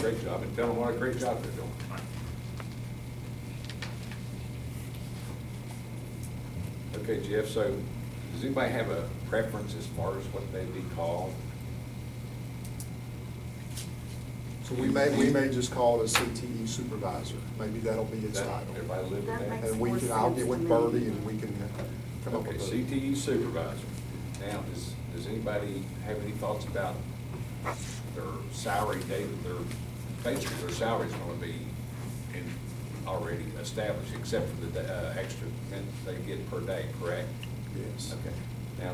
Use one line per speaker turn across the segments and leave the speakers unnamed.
great job, and tell them what a great job they're doing. Okay, Jeff, so does anybody have a preference as far as what they'd be called?
So we may, we may just call it a CTE supervisor, maybe that'll be its
That-
title.
Everybody live with
That
that?
makes
And we can, I'll get with
more sense to me.
Birdie and we can uh, come up
Okay, E?
with a.
CTE supervisor. Now, does, does anybody have any thoughts about their salary, they, their, basically their salary's gonna be in, already established, except for the, uh, extra minutes they get per day, correct?
Yes.
Okay. Now,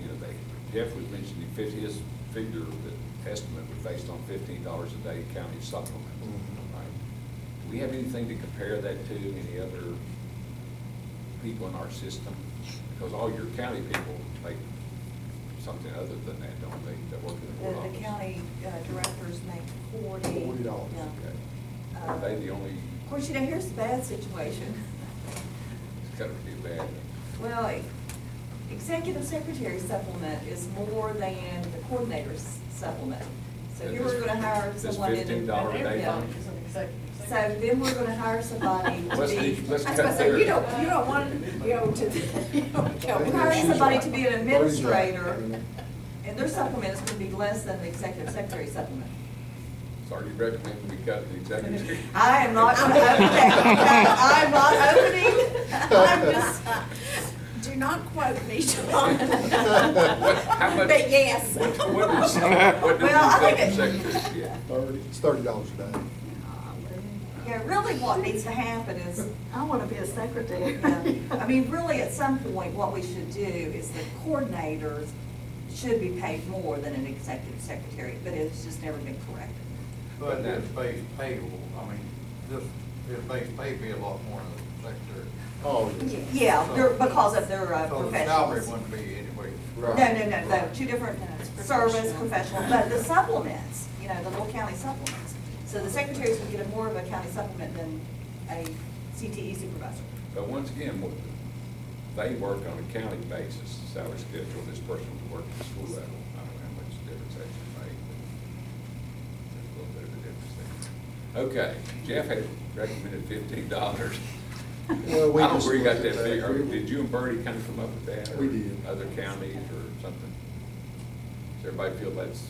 you know, they, Jeff was mentioning fifty, his figure, the estimate was based on fifteen dollars a day county supplement.
Mhm.
Right. Do we have anything to compare that to, any other people in our system? Because all your county people make something other than that, don't they, that work in the
The,
court office?
the county uh, directors make forty.
Forty dollars.
Yeah.
Okay.
Uh,
Are they the only,
Of course, you know, here's the bad situation.
it's gotta be bad.
Well, e- executive secretary supplement is more than the coordinator's supplement. So
And
if you were
this-
gonna hire
this
someone in.
$15 a day
Yeah.
thing?
So then we're gonna hire somebody to be.
Let's leave- let's
I was gonna
cut
say, you
there.
don't, you don't want, you know, to, you don't- you know, we're hiring
She's
somebody
right.
to be an
Birdie's right.
administrator, and their supplement is gonna be less than the executive secretary supplement.
Sorry, you recommend we cut the executive.
I am not gonna open that, I'm not opening, I'm just, do not quote me, John.
What- how much-
But yes.
What, what is, what does
Well, I
the
think
executive
it-
secretary get?
Thirty, it's thirty dollars a day.
Yeah, really what needs to happen is,
I want to be a secretary.
I mean, really, at some point, what we should do is the coordinators should be paid more than an executive secretary, but it's just never been corrected.
But it's base payable, I mean, this, it base pay be a lot more than the
Oh, yeah.
Yeah, they're, because of their uh,
secretary. So
professionals.
the salary wouldn't be anyway.
No,
Right.
no, no, no, two different service professional, but the supplements, you know, the little county supplements. So the secretaries would get a more of a county supplement than a CTE supervisor.
But once again, what- they work on a county basis, salary schedule, this person would work at the school level. I don't know how much difference that should make, but there's a little bit of a difference there. Okay, Jeff had recommended fifteen dollars.
Well, we
I don't
just
agree got
looked
that
at that.
figure. Did you and Bertie kind of come up with that? or
We did.
Other counties or something? Does everybody feel that's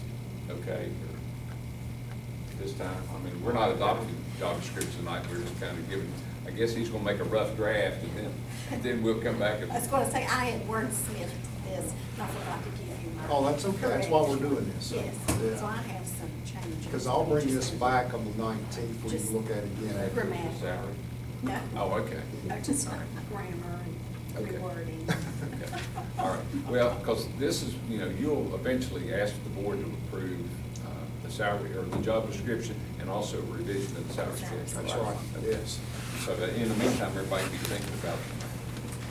okay or this time? I mean, we're not adopting job descriptions tonight, we're just kind of giving, I guess he's gonna make a rough draft and then, and then we'll come back and.
I was going to say, I had wordsmithed this, and I forgot to give you my.
Oh, that's okay. That's why we're doing this.
Yes,
Yeah.
so I have some changes.
Because I'll bring this back on the nineteenth, we
Just-
can look at it
Then
again.
after the
Grammatical.
Salary.
No.
Oh, okay.
No, just grammar and
Okay.
rewording.
Okay. All right, well, because this is, you know, you'll eventually ask the board to approve uh, the salary or the job description and also revision of the salary schedule.
That's right,
Okay.
yes.
So that in the meantime, everybody be thinking about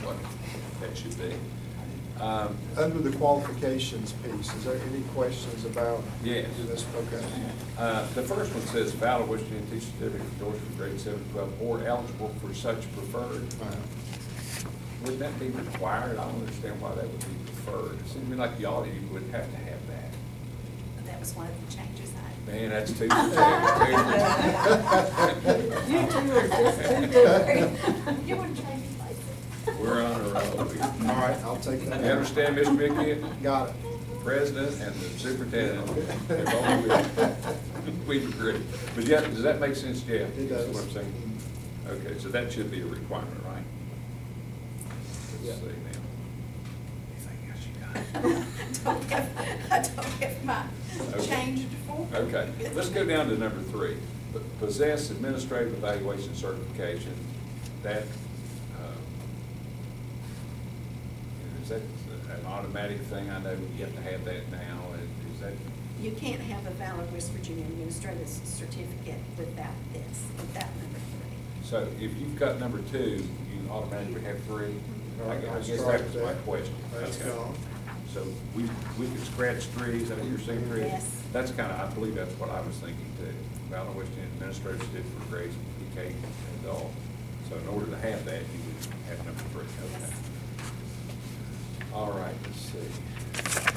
what that should be. Um,
Under the qualifications piece, is there any questions about?
Yes.
this? Okay.
Uh, The first one says valid Washington teacher certificate endorsed for grade seven, twelve, or eligible for such preferred. Would that be required? I don't understand why that would be preferred. It seems to me like y'all, you would have to have that.
That was one of the changes I.
Man, that's two for ten.
You two are just too different. You wouldn't change places.
We're on a roll.
All right, I'll take
You
that.
understand, Miss Mickey?
Got it.
President and the superintendent. They've all agreed. We agree. But yeah, does that make sense, Jeff?
It does.
Is what I'm saying? Okay, so that should be a requirement, right?
Yeah.
Let's see now.
Don't have, I don't have my
Okay.
changed form.
Okay, let's go down to number three. P- Possess administrative evaluation certification, that, uh, is that an automatic thing? I know you have to have that now, and is that,
You can't have a valid West Virginia administrative certificate without this, without number three.
so if you've got number two, you automatically have three? I gu- I guess that was my question.
That's
Okay.
gone.
So we, we could scratch three, is that what you're saying, three?
Yes.
That's kind of, I believe that's what I was thinking too, about which the administrators did for grades PK and all. So in order to have that, you would have number three, okay.
Yes.
All right, let's see.